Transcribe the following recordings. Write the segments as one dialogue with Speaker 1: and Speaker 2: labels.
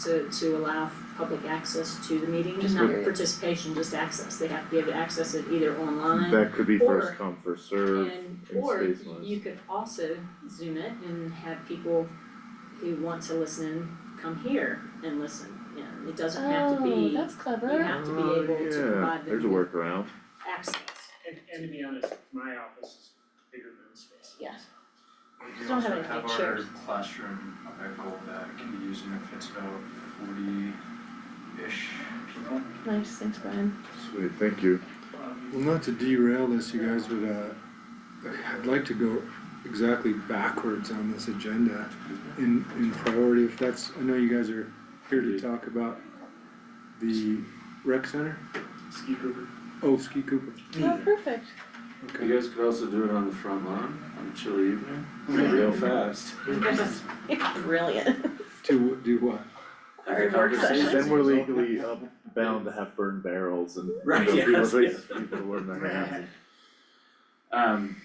Speaker 1: to, to allow public access to the meeting,
Speaker 2: Just
Speaker 1: not
Speaker 2: period.
Speaker 1: participation, just access, they have to be able to access it either online
Speaker 3: That could be
Speaker 1: or-
Speaker 3: first come, first serve.
Speaker 1: and,
Speaker 3: in
Speaker 1: or
Speaker 3: space wise.
Speaker 1: you could also zoom it and have people who want to listen come here and listen, you know, it doesn't have to
Speaker 2: Oh,
Speaker 1: be,
Speaker 2: that's
Speaker 1: you
Speaker 2: clever.
Speaker 1: have to be
Speaker 3: Oh,
Speaker 1: able to
Speaker 3: yeah,
Speaker 1: provide them
Speaker 3: There's a
Speaker 1: with
Speaker 3: workaround.
Speaker 1: access.
Speaker 4: And, and to be honest, my office is bigger than this space.
Speaker 2: Yes.
Speaker 5: We
Speaker 2: Don't have
Speaker 5: also
Speaker 2: any
Speaker 5: have
Speaker 2: big
Speaker 5: our
Speaker 2: chairs.
Speaker 5: classroom echo that uh, can be used and it fits about forty-ish people.
Speaker 2: Nice, thanks Brian.
Speaker 3: Sweet, thank you.
Speaker 5: Um,
Speaker 6: Well, not to derail this, you guys, but uh, I'd like to go exactly backwards on this agenda in, in priority, if that's, I know you guys are here to talk about the rec center,
Speaker 4: Ski Cooper.
Speaker 6: oh, Ski Cooper,
Speaker 1: Mm.
Speaker 2: Oh, perfect.
Speaker 6: okay.
Speaker 7: You guys could also do it on the front lawn on a chilly evening, real fast.
Speaker 2: Brilliant.
Speaker 6: To do what?
Speaker 7: Have a
Speaker 2: Our work
Speaker 7: conversation.
Speaker 2: session.
Speaker 3: Then we're legally up- bound to have burned barrels and
Speaker 7: Right,
Speaker 3: you know,
Speaker 7: yes,
Speaker 3: people,
Speaker 7: yes.
Speaker 3: people warm their hands.
Speaker 7: Um,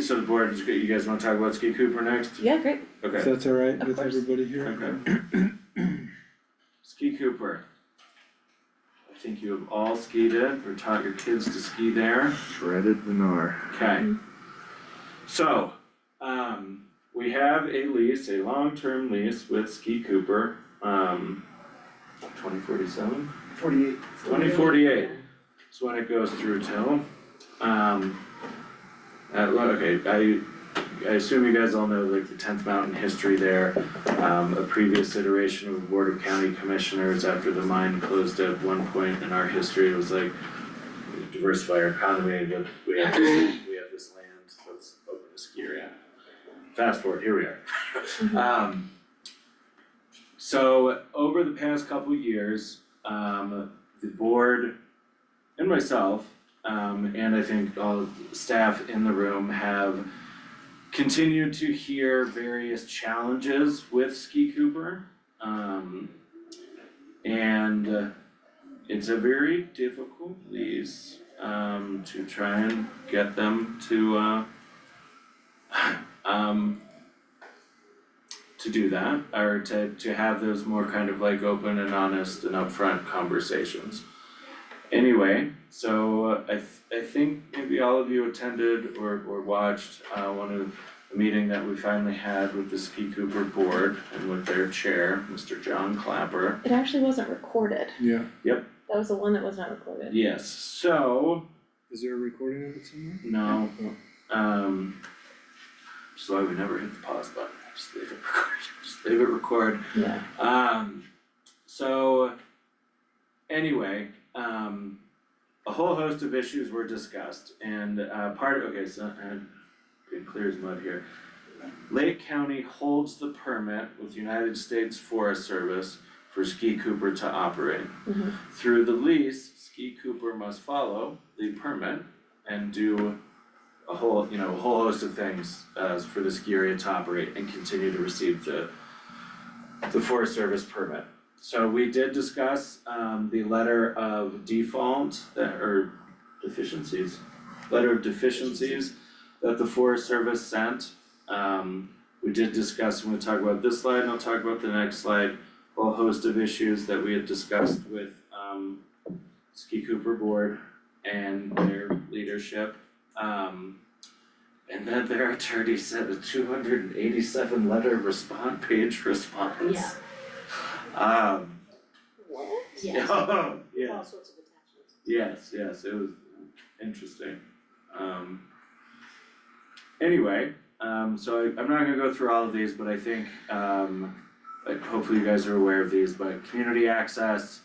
Speaker 7: so the board, is good- you guys wanna talk about Ski Cooper next?
Speaker 2: Yeah, great.
Speaker 6: If
Speaker 7: Okay,
Speaker 6: that's all right with
Speaker 2: course.
Speaker 6: everybody here?
Speaker 7: okay. Ski Cooper. I think you have all skied it or taught your kids to ski there.
Speaker 3: Shredded Lennar.
Speaker 7: Okay. So, um, we have a lease, a long-term lease with Ski Cooper, um, twenty forty-seven?
Speaker 4: Forty-eight.
Speaker 7: Twenty forty-eight is when it goes through till, um. uh, well, okay, I, I assume you guys all know like the tenth mountain history there. Um, a previous iteration of the Board of County Commissioners after the mine closed at one point in our history, it was like. Diversify our economy, but we have this, we have this land, let's open a ski area. Fast forward, here we are. Um. So over the past couple years, um, the board and myself, um, and I think all of the staff in the room have continued to hear various challenges with Ski Cooper. Um, and uh, it's a very difficult lease, um, to try and get them to, uh, um, to do that, or to, to have those more kind of like open and honest and upfront conversations. Anyway, so uh, I th- I think maybe all of you attended or or watched uh one of the meeting that we finally had with the Ski Cooper board and with their chair, Mr. John Clapper.
Speaker 2: It actually wasn't recorded.
Speaker 6: Yeah,
Speaker 2: That was the one that was not recorded.
Speaker 7: Yes, so,
Speaker 6: is there a recording of it somewhere?
Speaker 7: no,
Speaker 6: Oh,
Speaker 7: um, which is why we never hit the pause button, just leave it record, just leave it record.
Speaker 2: Yeah.
Speaker 7: Um, so anyway, um, a whole host of issues were discussed and uh part, okay, so I'm being clear as mud here. Lake County holds the permit with United States Forest Service for Ski Cooper to operate.
Speaker 2: Mhm.
Speaker 7: Through the lease, Ski Cooper must follow the permit and do a whole, you know, a whole host of things uh for the ski area to operate and continue to receive the the Forest Service permit. So we did discuss um the letter of default that or deficiencies, letter of deficiencies that the Forest Service sent. Um we did discuss, when we talk about this slide, and I'll talk about the next slide, a whole host of issues that we had discussed with um Ski Cooper Board and their leadership. Um and then their attorney sent a two hundred and eighty-seven letter respond page response.
Speaker 1: Yeah.
Speaker 7: Um,
Speaker 1: What? Yes,
Speaker 7: oh,
Speaker 1: all
Speaker 7: yes,
Speaker 1: sorts of attachments.
Speaker 7: yes, yes, it was interesting. Um, anyway, um, so I, I'm not gonna go through all of these, but I think, um, like hopefully you guys are aware of these, but community access,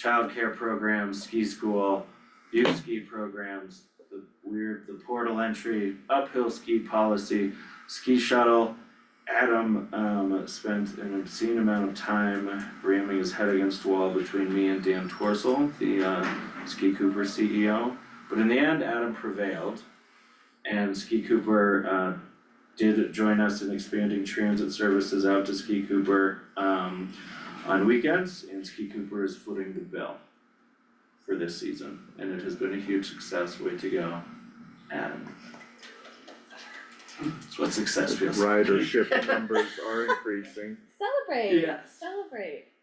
Speaker 7: childcare programs, ski school, youth ski programs, the weird, the portal entry, uphill ski policy, ski shuttle. Adam um spent an obscene amount of time ramming his head against the wall between me and Dan Torsel, the uh Ski Cooper CEO. But in the end, Adam prevailed and Ski Cooper uh did join us in expanding transit services out to Ski Cooper um on weekends and Ski Cooper is footing the bill for this season and it has been a huge success. Way to go, Adam. That's what success feels like.
Speaker 3: Ridership numbers are increasing.
Speaker 2: Celebrate.
Speaker 7: Yes.
Speaker 2: Celebrate.